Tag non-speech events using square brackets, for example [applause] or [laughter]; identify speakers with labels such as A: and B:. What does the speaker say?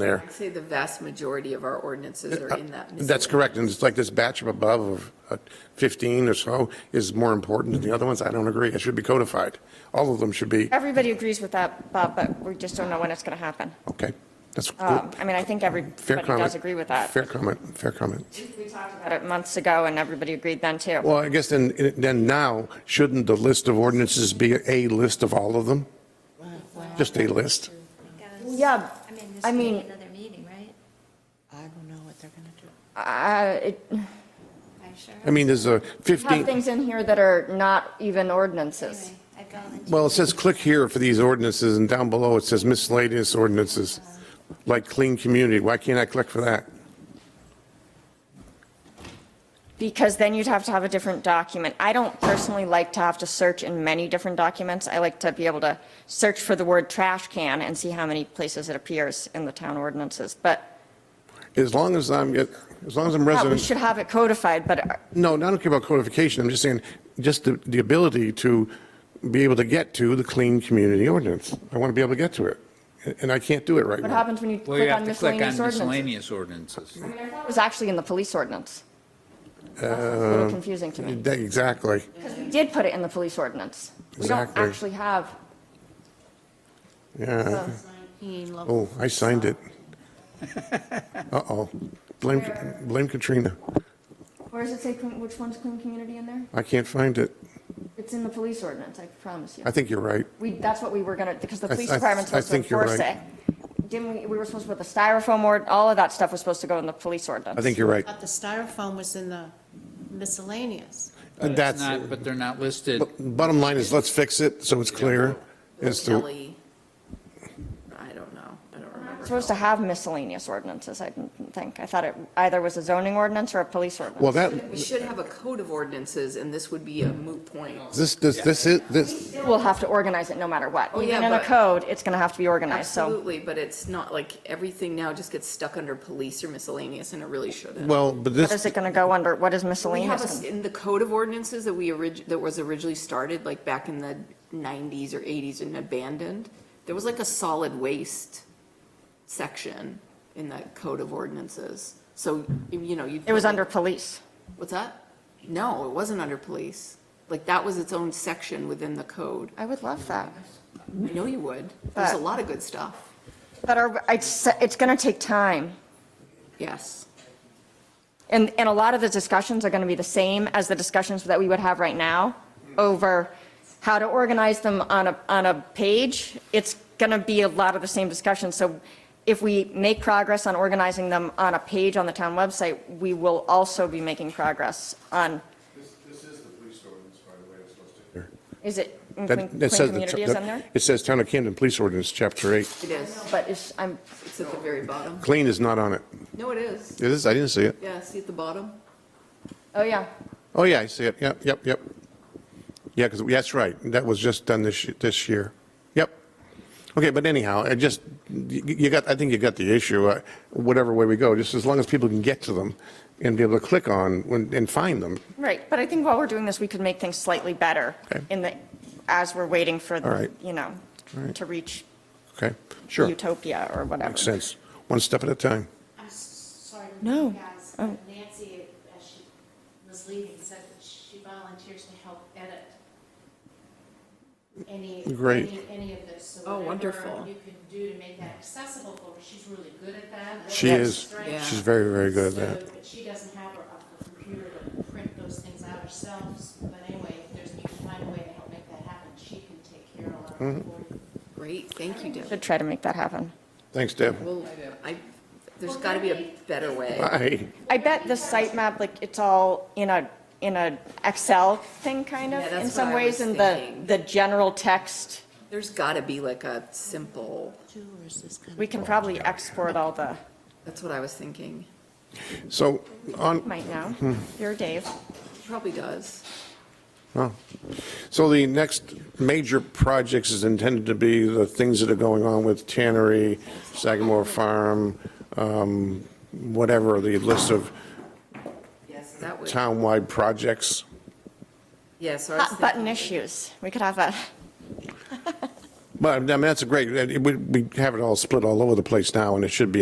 A: there.
B: I'd say the vast majority of our ordinances are in that.
A: That's correct, and it's like this batch of above of uh, 15 or so is more important than the other ones. I don't agree. It should be codified. All of them should be,
C: Everybody agrees with that, Bob, but we just don't know when it's going to happen.
A: okay, that's
C: Um,
A: good.
C: I mean, I think
A: Fair
C: everybody
A: comment.
C: does agree with that.
A: Fair comment, fair comment.
C: We talked about it months ago, and everybody agreed then, too.
A: Well, I guess then, then now, shouldn't the list of ordinances be a list of all of them? Just a list?
C: Yeah,
D: I mean,
C: I
D: this may be
C: mean-
D: another meeting, right?
E: I don't know what they're gonna do.
C: Uh, it-
D: I'm sure.
A: I mean, there's a
C: we have
A: 15,
C: things in here that are not even ordinances.
D: Anyway, I've got into
A: well, it says click here for these ordinances, and down below it says miscellaneous ordinances, like clean community. Why can't I click for that?
C: Because then you'd have to have a different document. I don't personally like to have to search in many different documents. I like to be able to search for the word trash can and see how many places it appears in the town ordinances. But
A: As long as I'm, as long as I'm
C: yeah,
A: resident.
C: we should have it codified, but
A: No, I don't care about codification. I'm just saying, just the, the ability to be able to get to the clean community ordinance. I want to be able to get to it, and I can't do it right
C: what
A: now.
C: happens when you
F: Well, you
C: click on
F: have to click on
C: miscellaneous ordinances?
F: miscellaneous ordinances.
C: It was actually in the police ordinance. That's what's a little
A: Uh,
C: confusing to me.
A: That- Exactly.
C: We did put it in the police ordinance. We don't
A: Exactly.
C: actually have,
A: Yeah.
B: Oh,
A: Oh, I signed
C: [laughs]
A: it. Uh-oh. Blame, blame Katrina.
C: where does it say, clean- which one's clean community in there?
A: I can't find it.
C: It's in the police ordinance, I promise you.
A: I think you're right.
C: We, that's what we were gonna, because the
A: I-
C: police
A: I-
C: department's
A: I
C: supposed to
A: think you're
C: enforce it.
A: right.
C: Didn't we, we were supposed to put the styrofoam ord, all of that stuff was supposed to go in the police ordinance.
A: I think you're right.
E: But the styrofoam was in the miscellaneous.
F: But it's
A: That's,
F: not- But they're not listed.
A: bottom line is, let's fix it so it's clear. As to,
B: Kelly, I don't know, I don't
C: We're
B: remember.
C: Supposed to have miscellaneous ordinances, I didn't think. I thought it either was a zoning ordinance or a police ordinance.
A: well, that,
B: We should have a code of ordinances, and this would be a moot point.
A: this, this, this, is- this,
C: We'll have to organize it no matter what.
B: Oh, yeah,
C: Even in a
B: but-
C: code, it's gonna have to be organized, so.
B: Absolutely, but it's not like everything now just gets stuck under police or miscellaneous, and it really shouldn't.
A: well, but
C: What is
A: this,
C: it gonna go under? What is
B: We have, us-
C: miscellaneous?
B: in the code of ordinances that we orig, that was originally started, like back in the nineties or eighties and abandoned, there was like a solid waste section in that code of ordinances. So, you know, you.
C: It was under police.
B: What's that? No, it wasn't under police. Like, that was its own section within the code.
C: I would love that.
B: I know you would. There's a
C: But-
B: lot of good stuff.
C: But are, it's, it's gonna take time.
B: Yes.
C: And, and a lot of the discussions are going to be the same as the discussions that we would have right now over how to organize them on a, on a page. It's going to be a lot of the same discussions. So if we make progress on organizing them on a page on the town website, we will also be making progress on, is it, in clean
A: that, that
C: Clean
A: says. the-
C: community is on there?
A: It says Town of Camden Police Ordinance, Chapter 8.
B: It is.
C: But it's, I'm,
B: It's at the very bottom.
A: Clean is not on it.
B: No, it is.
A: It is, I didn't see it.
B: Yeah, see at the bottom?
C: oh yeah,
A: Oh, yeah, I see it. Yep, yep, yep. Yeah, because, that's right. That was just done this, this year. Yep. Okay, but anyhow, I just, you you got, I think you got the issue, uh, whatever way we go, just as long as people can get to them and be able to click on when- and find them.
C: right. But I think while we're doing this, we could make things slightly better
A: Okay.
C: in the, as we're waiting for,
A: All right.
C: you know,
A: right.
C: to reach
A: Okay, sure. Makes
C: utopia or whatever.
A: sense. One step at a time.
E: I'm sorry to
C: No.
E: interrupt you guys, but Nancy, as she was leaving, said that she volunteers to help edit any,
A: Great.
E: any, any of this. So
B: Oh,
E: whatever
B: wonderful.
E: You can do to make that accessible for her, she's really good at that.
A: She
E: That's
A: is.
E: great.
B: Yeah.
A: She's very, very good at that.
E: So, But she doesn't have her up the computer to print those things out herself, but anyway, if there's, you can find a way to help make that happen, she can take care of a lot of
A: Mm-hmm.
E: it for you.
B: Great, thank you, Deb.
C: Should try to make that happen.
A: Thanks, Deb.
B: Well, I, there's got to be a better way.
A: Bye.
C: I bet the site map, like, it's all in a, in a Excel thing, kind of,
B: Yeah, that's
C: in some
B: what I
C: ways,
B: was
C: and the,
B: thinking.
C: the general text.
B: There's got to be like a simple,
E: Jewelers is kind
C: We
A: Oh,
C: can probably export all the,
B: that's what I was thinking.
A: So, on,
C: might know,
A: Hmm.
C: you're Dave.
B: Probably does.
A: Oh. So the next major projects is intended to be the things that are going on with Tannery, Sagamore Farm, um, whatever, the list of
B: Yes, that would,
A: townwide projects.
B: yeah, so I was
C: Hot button
B: thinking-
C: issues, we could have a,
A: But I mean, that's a great, we, we have it all split all over the place now, and it should be